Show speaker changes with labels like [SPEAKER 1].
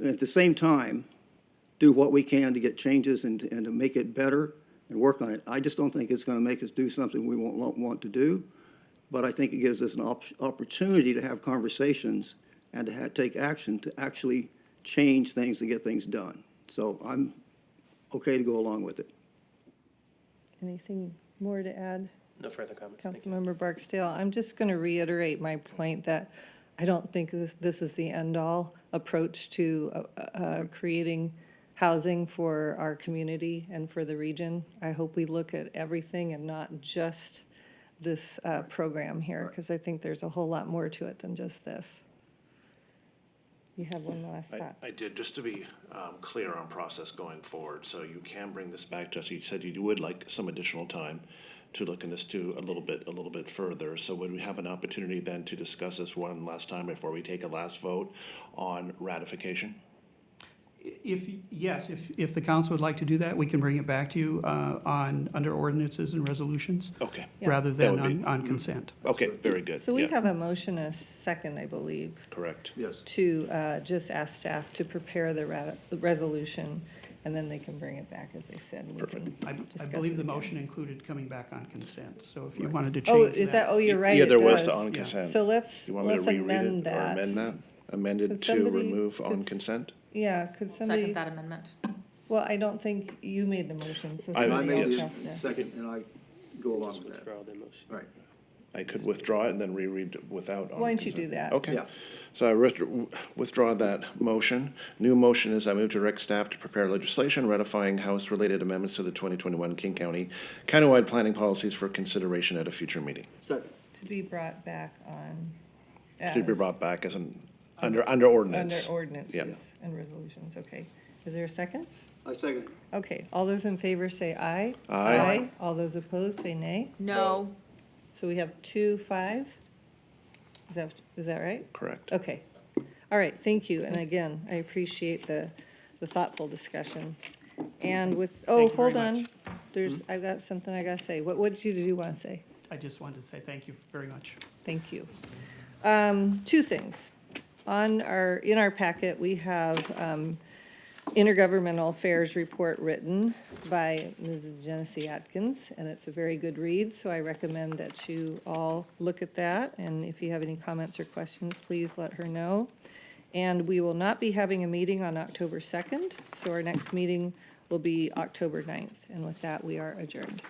[SPEAKER 1] and at the same time, do what we can to get changes and, and to make it better and work on it. I just don't think it's going to make us do something we won't, won't want to do, but I think it gives us an op- opportunity to have conversations and to ha- take action to actually change things to get things done. So I'm okay to go along with it.
[SPEAKER 2] Anything more to add?
[SPEAKER 3] No further comments. Thank you.
[SPEAKER 2] Councilmember Barksdale, I'm just going to reiterate my point that I don't think this, this is the end-all approach to uh, uh, creating housing for our community and for the region. I hope we look at everything and not just this uh, program here, because I think there's a whole lot more to it than just this. You have one last
[SPEAKER 4] I-
[SPEAKER 2] thought.
[SPEAKER 4] I did, just to be um, clear on process going forward, so you can bring this back to us. You said you would like some additional time to look in this to a little bit, a little bit further. So would we have an opportunity then to discuss this one last time before we take a last vote on ratification?
[SPEAKER 5] If, yes, if, if the council would like to do that, we can bring it back to you uh, on, under ordinances and resolutions,
[SPEAKER 4] Okay,
[SPEAKER 5] rather
[SPEAKER 4] Oh, That
[SPEAKER 5] than
[SPEAKER 4] would be- Mm-hmm.
[SPEAKER 5] on, on consent.
[SPEAKER 4] okay, very good.
[SPEAKER 2] So we
[SPEAKER 4] Yeah,
[SPEAKER 2] have a motion, a second, I believe.
[SPEAKER 4] Correct.
[SPEAKER 1] Yes.
[SPEAKER 2] to uh, just ask staff to prepare the rat- the resolution, and then they can bring it back, as they said. and we can
[SPEAKER 5] I, I
[SPEAKER 2] discuss it
[SPEAKER 5] believe the
[SPEAKER 2] again.
[SPEAKER 5] motion included coming back on consent, so if you wanted to
[SPEAKER 2] Oh,
[SPEAKER 5] change
[SPEAKER 2] is that, oh, you're right,
[SPEAKER 4] Yeah,
[SPEAKER 2] it
[SPEAKER 4] there was the
[SPEAKER 2] does.
[SPEAKER 4] E-, on consent.
[SPEAKER 2] So let's,
[SPEAKER 4] You want me to
[SPEAKER 2] let's
[SPEAKER 4] reread
[SPEAKER 2] amend
[SPEAKER 4] it or amend
[SPEAKER 2] that.
[SPEAKER 4] that? Amended
[SPEAKER 2] Could
[SPEAKER 4] to
[SPEAKER 2] somebody-
[SPEAKER 4] remove on
[SPEAKER 2] could s-
[SPEAKER 4] consent?
[SPEAKER 2] Yeah, could
[SPEAKER 6] Second
[SPEAKER 2] somebody,
[SPEAKER 6] that amendment.
[SPEAKER 2] well, I don't think you made the motion, so
[SPEAKER 4] I-
[SPEAKER 1] I
[SPEAKER 2] somebody
[SPEAKER 1] made
[SPEAKER 2] else
[SPEAKER 4] yes.
[SPEAKER 2] has
[SPEAKER 1] the
[SPEAKER 2] to.
[SPEAKER 1] second, and I go along
[SPEAKER 3] Just
[SPEAKER 1] with that.
[SPEAKER 3] withdraw the motion.
[SPEAKER 1] Right.
[SPEAKER 4] I could withdraw it and then reread without. on
[SPEAKER 2] Why don't you
[SPEAKER 4] consent.
[SPEAKER 2] do that?
[SPEAKER 4] Okay.
[SPEAKER 1] Yeah.
[SPEAKER 4] So I withdraw- withdraw that motion. New motion is I move to direct staff to prepare legislation ratifying House-related amendments to the 2021 King County countywide planning policies for consideration at a future meeting.
[SPEAKER 1] Second.
[SPEAKER 2] To be brought back on.
[SPEAKER 4] To be
[SPEAKER 2] as-
[SPEAKER 4] brought back as an, under,
[SPEAKER 2] Under
[SPEAKER 4] under ordinance.
[SPEAKER 2] ordinances and resolutions, okay. Is there a second?
[SPEAKER 1] I second.
[SPEAKER 2] Okay, all those in favor say aye.
[SPEAKER 4] Aye.
[SPEAKER 2] All those opposed say nay.
[SPEAKER 6] No,
[SPEAKER 2] So we have two, five? Is that, is that right?
[SPEAKER 4] Correct.
[SPEAKER 2] Okay. All right, thank you. And again, I appreciate the, the thoughtful discussion. And with, oh,
[SPEAKER 5] Thank you very
[SPEAKER 2] hold on.
[SPEAKER 5] much.
[SPEAKER 2] There's, I've got something I gotta say. What, what did you, did you wanna say?
[SPEAKER 5] I just wanted to say thank you very much.
[SPEAKER 2] Thank you. Um, two things. On our, in our packet, we have, um, intergovernmental affairs report written by Ms. Genesee Atkins, and it's a very good read, so I recommend that you all look at that, and if you have any comments or questions, please let her know. And we will not be having a meeting on October second, so our next meeting will be October 9th. And with that, we are adjourned.